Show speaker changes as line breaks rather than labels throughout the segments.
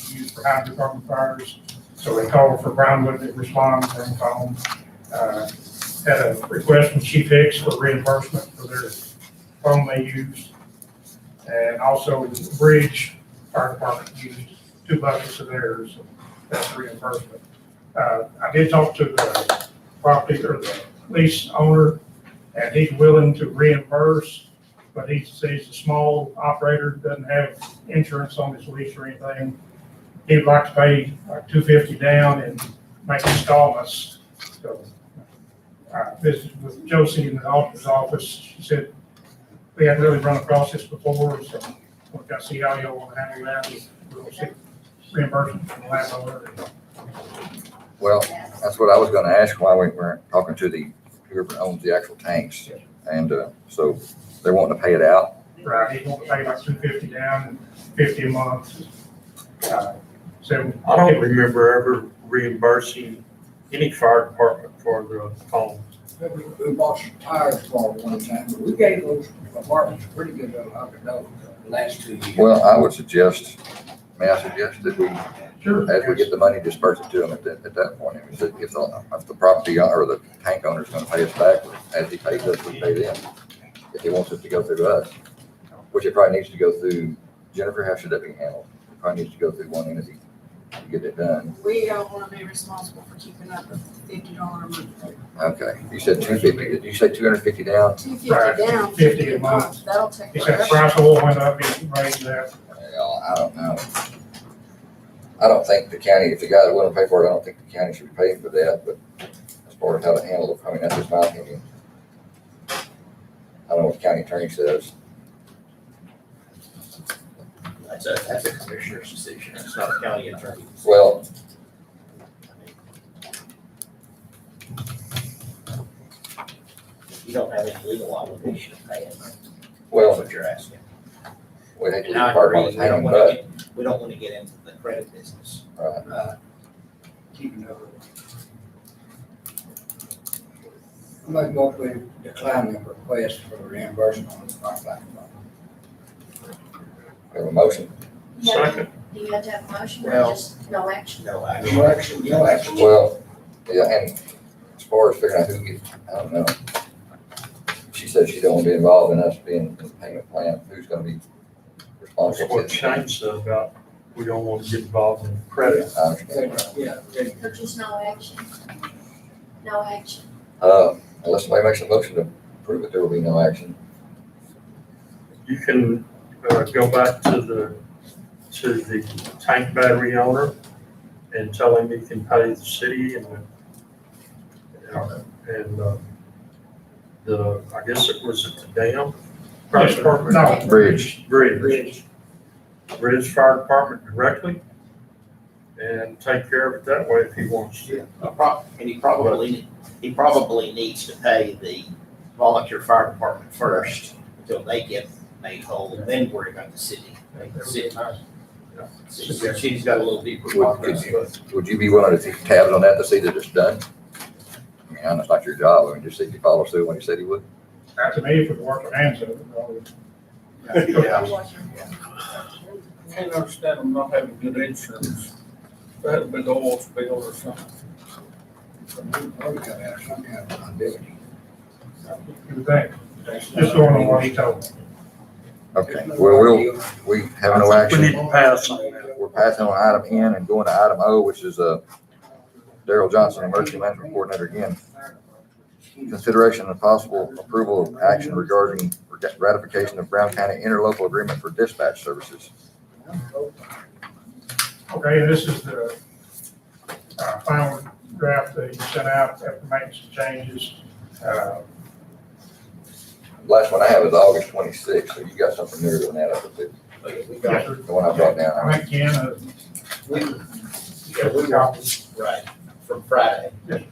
fire department fires. So we called for Brownwood that responded and called, uh, had a request from Chief Hicks for reimbursement for their phone they used. And also the bridge, fire department used two buckets of theirs, that's reimbursement. Uh, I did talk to the property or the lease owner, and he's willing to reimburse, but he says he's a small operator, doesn't have insurance on his lease or anything. He'd like to pay like two fifty down and make installments, so. I visited with Josie in the auditor's office, she said, we hadn't really run across this before, so we've got to see how y'all want to handle that, we'll see reimbursement from the landowner.
Well, that's what I was gonna ask while we were talking to the, whoever owns the actual tanks. And, uh, so they're wanting to pay it out.
Right, he won't pay like two fifty down and fifty a month. Uh, So,
I don't remember ever reimbursing any fire department for the um, phone.
We bought some tires for them one time, but we gave those apartments pretty good though, I could know, the last two years.
Well, I would suggest, may I suggest that we,
sure.
as we get the money, disperse it to them at that, at that point. If the, if the- if the property o- or the tank owner's gonna pay us back, as he pays us, we pay them. If he wants it to go through us, which it probably needs to go through, Jennifer, how should that be handled? It probably needs to go through one entity to get it done.
We don't want to be responsible for keeping up with fifty dollar a month.
Okay, you said two fifty, did you say two hundred fifty down?
Two fifty
Right,
down.
50 a month.
That'll take.
He said the
forever.
price of oil went up, he raised that.
Well, I don't know. I don't think the county, if the guy that wouldn't pay for it, I don't think the county should be paying for that, but as far as how to handle it, I mean, that's just my opinion. I don't know what the county attorney says.
That's a, that's a commissioner's decision, it's not a county attorney's. decision.
Well,
You don't have any legal obligation to pay it, that's
well,
what you're asking.
we hate to leave
And I
part
agree,
on
we
the hanging,
don't wanna
but,
get, we don't wanna get into the credit business.
right,
Uh,
Keeping up with it. I'm like, well, we decline the request for reimbursement on the fire
we have a motion.
You have to- Do you have to have a motion or
Well-
just no action?
no,
back.
I,
No action, no action.
Well, yeah, and as far as figuring out who gets, I don't know. She said she don't wanna be involved in us being in the payment plan, who's gonna be
That's
responsible?
what Shane said about, we don't want to get involved in credit.
I understand.
Yeah, yeah.
Or just no action? No action.
Uh, unless somebody makes a motion to prove it, there will be no action.
You can, uh, go back to the, to the tank battery owner and tell him he can pay the city and the, and, uh, the, I guess it was at the dam. Fire department?
No.
Bridge.
Bridge. Bridge Fire Department directly and take care of it that way if he wants to.
a prob, and he probably, he probably needs to pay the volunteer fire department first until they get made whole, and then worry about the city. The city- She's she's got a little deeper
Would,
pocket.
could you, would you be willing to keep tabs on that to see that it's done? I mean, I know it's not your job, I mean, just see if he follows through when he said he would.
Not to me, if it worked for hands of it, probably.
Yeah.
Can't understand them not having good insurance. They had a big oil spill or something.
We gotta have some kind of liability.
You would think, just going on what he told me.
Okay, well, we'll, we have no
We need
action.
to pass on that.
We're passing on item N and going to item O, which is, uh, Daryl Johnson, Emergency Management Coordinator again. Consideration and possible approval of action regarding ratification of Brown County Interlocal Agreement for Dispatch Services.
Okay, this is the uh, final draft that you sent out after making some changes. Uh,
Last one I have is August twenty-sixth, so you got something newer than that, I think,
We
yes,
got-
sir.
the one I brought down.
I think Ken, uh,
we-
yeah, we got
Right, from Friday.
Well,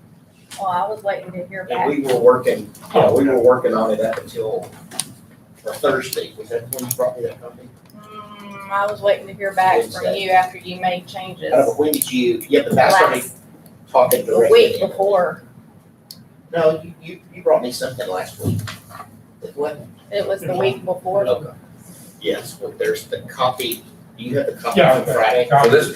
I was waiting to hear
And we were working, you know, we were working on it up until or Thursday, was that when you brought me that copy?
Mm, I was waiting to hear back from
Wednesday.
you after you made
I
changes.
don't know, when did you, yeah, but that's when we
Last,
talking
a
directly.
week before,
No, you, you, you brought me something last week. That What?
it was the week before.
Okay. Yes, well, there's the copy, Do you have the copy
Yeah,
from
okay.
Friday.
So this,